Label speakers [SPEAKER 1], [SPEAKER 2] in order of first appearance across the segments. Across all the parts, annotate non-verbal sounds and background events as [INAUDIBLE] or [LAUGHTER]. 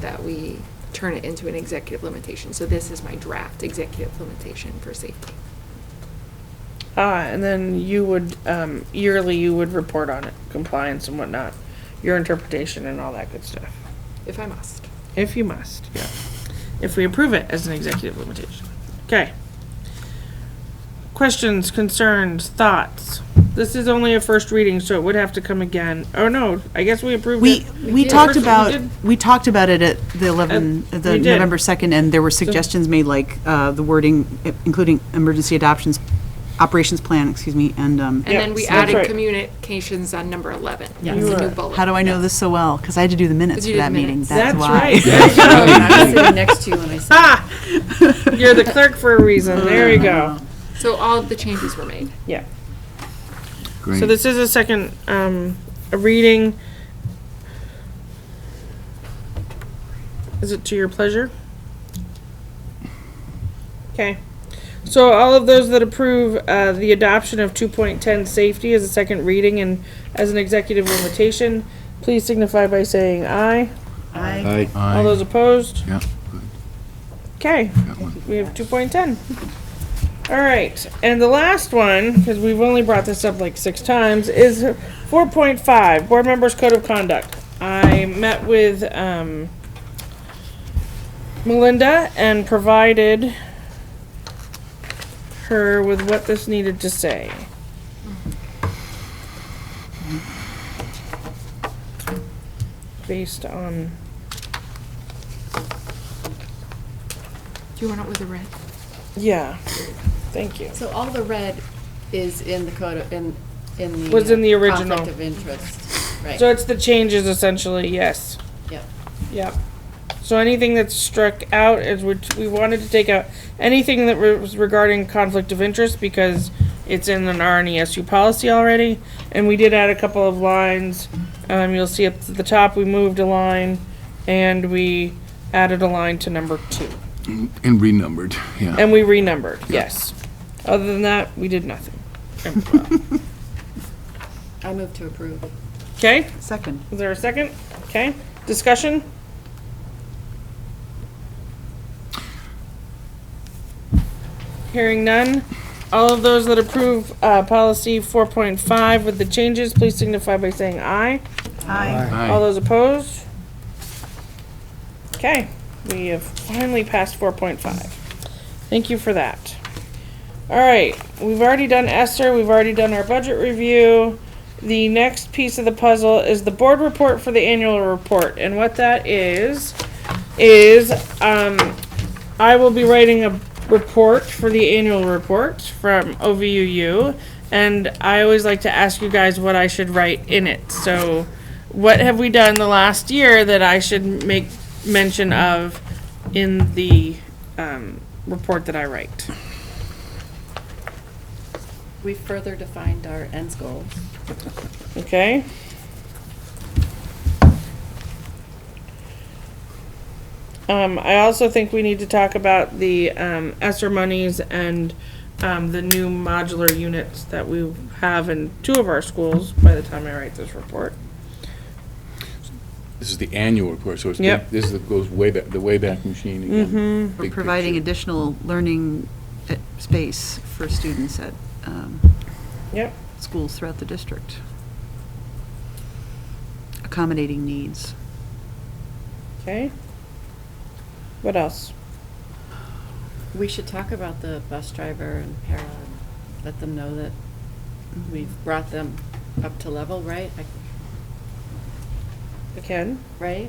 [SPEAKER 1] that we turn it into an executive limitation. So this is my draft executive limitation for safety.
[SPEAKER 2] Ah, and then you would, um, yearly you would report on it, compliance and whatnot, your interpretation and all that good stuff,
[SPEAKER 1] If I must.
[SPEAKER 2] if you must, yeah. If we approve it as an executive limitation. Okay. Questions, concerns, thoughts? This is only a first reading, so it would have to come again. Oh, no, I guess we approved
[SPEAKER 3] We,
[SPEAKER 2] it.
[SPEAKER 3] we
[SPEAKER 2] did.
[SPEAKER 3] talked
[SPEAKER 2] First we
[SPEAKER 3] about,
[SPEAKER 2] did.
[SPEAKER 3] we talked about it at the 11,
[SPEAKER 2] Uh,
[SPEAKER 3] the
[SPEAKER 2] we did.
[SPEAKER 3] November 2nd, and there were suggestions made, like, uh, the wording, i- including emergency adoptions, operations plan, excuse me, and, um,
[SPEAKER 1] And then
[SPEAKER 2] Yep,
[SPEAKER 1] we
[SPEAKER 2] that's
[SPEAKER 1] added
[SPEAKER 2] right.
[SPEAKER 1] communications on number 11.
[SPEAKER 3] Yes.
[SPEAKER 1] It's a new
[SPEAKER 2] Right.
[SPEAKER 1] bullet.
[SPEAKER 3] how do I know this so well? Because I had to do the minutes
[SPEAKER 1] 'Cause
[SPEAKER 3] for
[SPEAKER 1] you did
[SPEAKER 3] that meeting,
[SPEAKER 1] minutes.
[SPEAKER 3] that's
[SPEAKER 2] That's
[SPEAKER 3] why.
[SPEAKER 2] right. [LAUGHS]
[SPEAKER 4] I was sitting next to you when I said,
[SPEAKER 2] You're the clerk for a reason. There you
[SPEAKER 4] Uh-huh.
[SPEAKER 2] go.
[SPEAKER 1] So all of the changes were made.
[SPEAKER 2] Yeah. So
[SPEAKER 5] Great.
[SPEAKER 2] this is a second, um, a reading. Is it to your pleasure? Okay. So all of those that approve, uh, the adoption of two point ten safety as a second reading and as an executive limitation, please signify by saying aye.
[SPEAKER 4] I
[SPEAKER 5] Aye.
[SPEAKER 2] All those opposed?
[SPEAKER 5] Yeah,
[SPEAKER 2] Okay,
[SPEAKER 5] that one.
[SPEAKER 2] we have two point ten. All right, and the last one, because we've only brought this up like six times, is four point five, board members' code of conduct. I met with, um, Melinda and provided her with what this needed to say. Based on,
[SPEAKER 1] Do you want it with a red?
[SPEAKER 2] yeah, thank you.
[SPEAKER 4] So all the red is in the code, of- in, in the.
[SPEAKER 2] Was in the
[SPEAKER 4] uh,
[SPEAKER 2] original.
[SPEAKER 4] Conflict of interest, right.
[SPEAKER 2] So it's the changes essentially, yes.
[SPEAKER 4] Yep.
[SPEAKER 2] Yep. So anything that's struck out is which we wanted to take out, anything that re- was regarding conflict of interest because it's in an RNESU policy already. And we did add a couple of lines. Um, you'll see up at the top, we moved a line and we added a line to number two.
[SPEAKER 5] And renumbered, yeah.
[SPEAKER 2] And we renumbered, yes. Other than that, we did nothing.
[SPEAKER 4] I move to approve.
[SPEAKER 2] Okay?
[SPEAKER 3] [LAUGHS] Second.
[SPEAKER 2] Is there a second? Okay. Discussion? Hearing none. All of those that approve uh, policy 4.5 with the changes, please signify by saying aye. All
[SPEAKER 5] Aye.
[SPEAKER 2] those opposed? Okay, we have finally passed 4.5. Thank you for that. All right, we've already done Esther, we've already done our budget review. The next piece of the puzzle is the board report for the annual report, and what that is, is, um, I will be writing a report for the annual report from OVUU, and I always like to ask you guys what I should write in it, so what have we done the last year that I should make mention of in the, um, report that I write?
[SPEAKER 4] We further defined our ends goal.
[SPEAKER 2] Okay. Um, I also think we need to talk about the, um, ESSER monies and, um, the new modular units that we have in two of our schools by the time I write this report.
[SPEAKER 5] This is the annual report, so it's,
[SPEAKER 2] Yep. Mm-hmm.
[SPEAKER 5] big- this is, goes way back, the way back Machine again.
[SPEAKER 3] For
[SPEAKER 5] Big
[SPEAKER 3] providing
[SPEAKER 5] picture.
[SPEAKER 3] additional learning uh, space for students at um,
[SPEAKER 2] Yep.
[SPEAKER 3] schools throughout the district. Accommodating needs.
[SPEAKER 2] Okay. What else?
[SPEAKER 4] We should talk about the bus driver and para, and let them know that we've brought them up to level, right? Like,
[SPEAKER 2] Ken?
[SPEAKER 4] Right?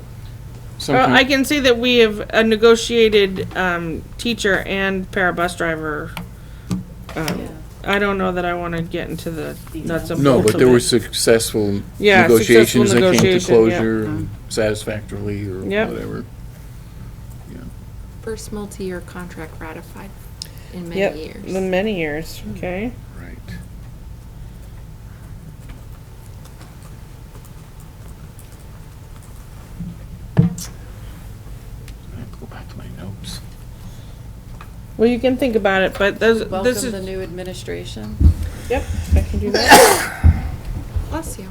[SPEAKER 2] Well, I
[SPEAKER 5] Sometime-
[SPEAKER 2] can say that we have a negotiated, um, teacher and para bus driver.
[SPEAKER 4] Yeah.
[SPEAKER 2] Um, I don't know that I wanna get into the nuts and bolts of
[SPEAKER 5] No, but there
[SPEAKER 2] it.
[SPEAKER 5] were successful
[SPEAKER 2] Yeah, successful
[SPEAKER 5] negotiations that came to
[SPEAKER 2] negotiation, yeah.
[SPEAKER 5] closure satisfactorily or
[SPEAKER 2] Yep.
[SPEAKER 5] whatever.
[SPEAKER 1] First multi-year contract ratified in
[SPEAKER 2] Yep,
[SPEAKER 1] many years.
[SPEAKER 2] the many years, okay.
[SPEAKER 5] Right. I have to go back to my notes.
[SPEAKER 2] Well, you can think about it, but those, this
[SPEAKER 4] Welcome the
[SPEAKER 2] is,
[SPEAKER 4] new administration.
[SPEAKER 2] yep, I can do that.
[SPEAKER 1] Bless you.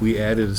[SPEAKER 5] We added a